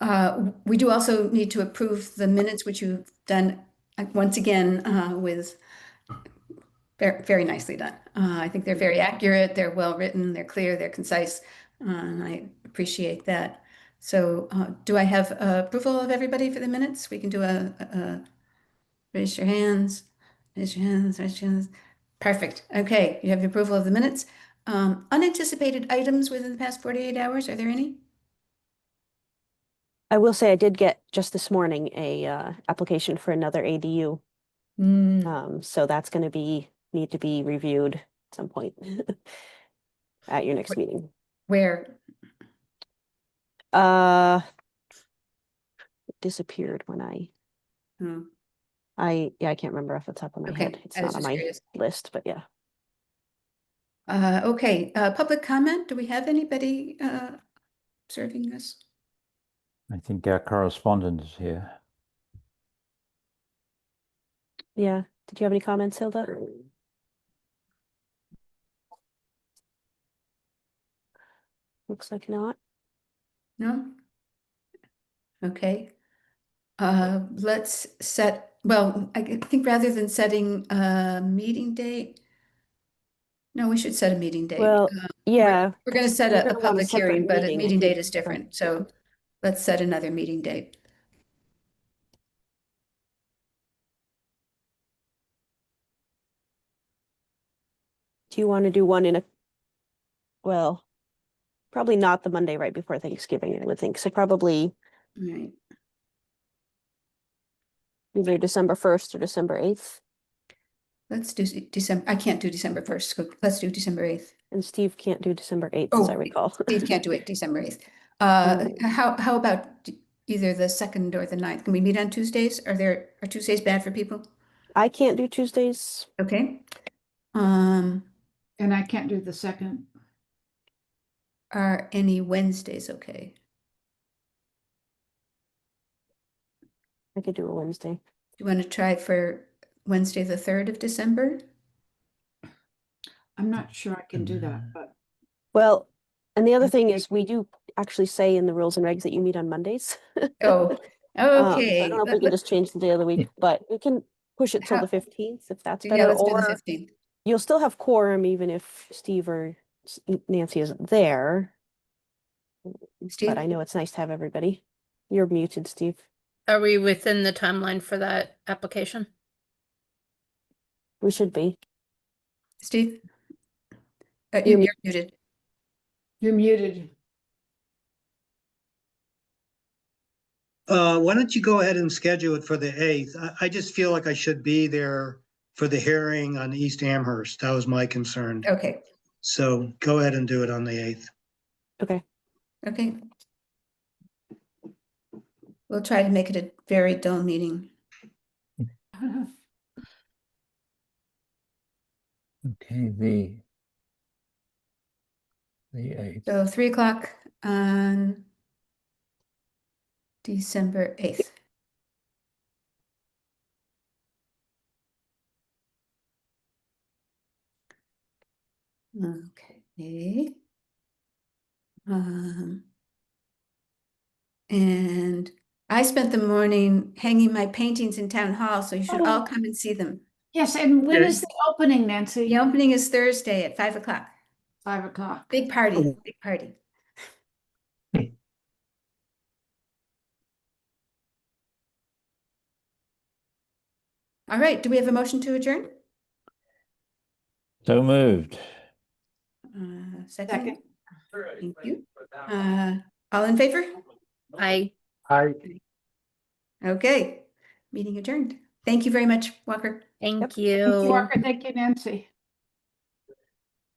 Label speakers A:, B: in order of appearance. A: Uh, We do also need to approve the minutes, which you've done, uh, once again, uh, with ver- very nicely done. Uh, I think they're very accurate, they're well-written, they're clear, they're concise, uh, and I appreciate that. So uh, do I have uh, approval of everybody for the minutes? We can do a, a- a- raise your hands, raise your hands, raise your hands. Perfect. Okay, you have the approval of the minutes. Um, Unanticipated items within the past 48 hours, are there any?
B: I will say I did get just this morning a uh, application for another ADU.
A: Hmm,
B: Um, so that's going to be, need to be reviewed at some point at your next
A: Wait.
B: meeting.
A: Where?
B: Uh, it disappeared when I,
A: Hmm.
B: I, yeah, I can't remember off the top of my
A: Okay,
B: head. It's
A: I was
B: not on
A: just
B: my
A: curious.
B: list, but yeah.
A: Uh, okay, uh, public comment, do we have anybody, uh, serving us?
C: I think our correspondent is here.
B: Yeah. Did you have any comments, Hilda? Looks like not.
A: No? Okay. Uh, let's set, well, I g- think rather than setting a meeting date, no, we should set a meeting date.
B: Well,
A: Uh,
B: yeah,
A: We're gonna set
B: we're
A: a, a
B: gonna want a
A: public
B: separate
A: hearing, but a
B: meeting.
A: meeting date is different, so let's set another meeting date.
B: do you want to do one in a, well, probably not the Monday right before Thanksgiving, I would think. So probably
A: All right.
B: either December first or December eighth.
A: Let's do December, I can't do December first, let's do December eighth.
B: And Steve can't do December eighth, as
A: Oh,
B: I
A: it-
B: recall.
A: Steve can't do it December 8th. Uh,
D: Oh.
B: Mm.
A: how, how about d- either the 2nd or the 9th? Can we meet on Tuesdays? Are there, are Tuesdays bad for people?
B: I can't do Tuesdays.
A: Okay. Um,
D: And I can't do the second.
A: are any Wednesdays okay?
B: I could do a Wednesday.
A: Do you want to try for Wednesday, the 3rd of December?
D: I'm not sure I can do that,
C: Mm.
D: but
B: Well, and the other
A: Okay.
B: thing is we do actually say in the rules and regs that you meet on Mondays.
A: Oh,
D: Uh,
B: Um, so
A: okay.
B: I don't know if
A: Let-
B: we can
A: let-
B: just change the day of the week, but we can push it till
A: How-
B: the fifteenth if that's
A: Yeah,
B: better,
A: let's do the
B: or
A: 15th.
B: you'll still have quorum even if Steve or S- Nancy isn't there.
A: Steve?
B: But I know it's nice to have everybody. You're muted, Steve.
E: Are we within the timeline for that application?
B: We should be.
A: Steve? Uh,
B: You're
A: you-
B: mu-
A: you're muted.
D: you're muted.
F: Uh, why don't you go ahead and schedule it for the eighth? I, I just feel like I should be there for the hearing on East Amherst. That was my concern.
A: Okay,
F: So go ahead and do it on the eighth.
A: okay. We'll try to make it a very dull meeting.
C: Mm-hmm. Okay, the the eighth.
A: So three o'clock on December eighth. Okay. Um, and I spent the morning hanging my paintings in town hall, so you should all
D: Oh.
A: come and see them.
D: Yes, and when
F: Okay.
D: is the opening, Nancy?
A: The opening is Thursday at five o'clock.
D: Five o'clock.
A: Big party,
F: Oh.
A: big party. All right, do we have a motion to adjourn?
C: So moved.
A: Uh,
D: Second.
A: Second, thank you. Uh, All in favor?
E: I
A: Okay, meeting adjourned. Thank you very much, Walker.
E: thank
D: Thank you,
E: you.
D: Walker. Thank you, Nancy.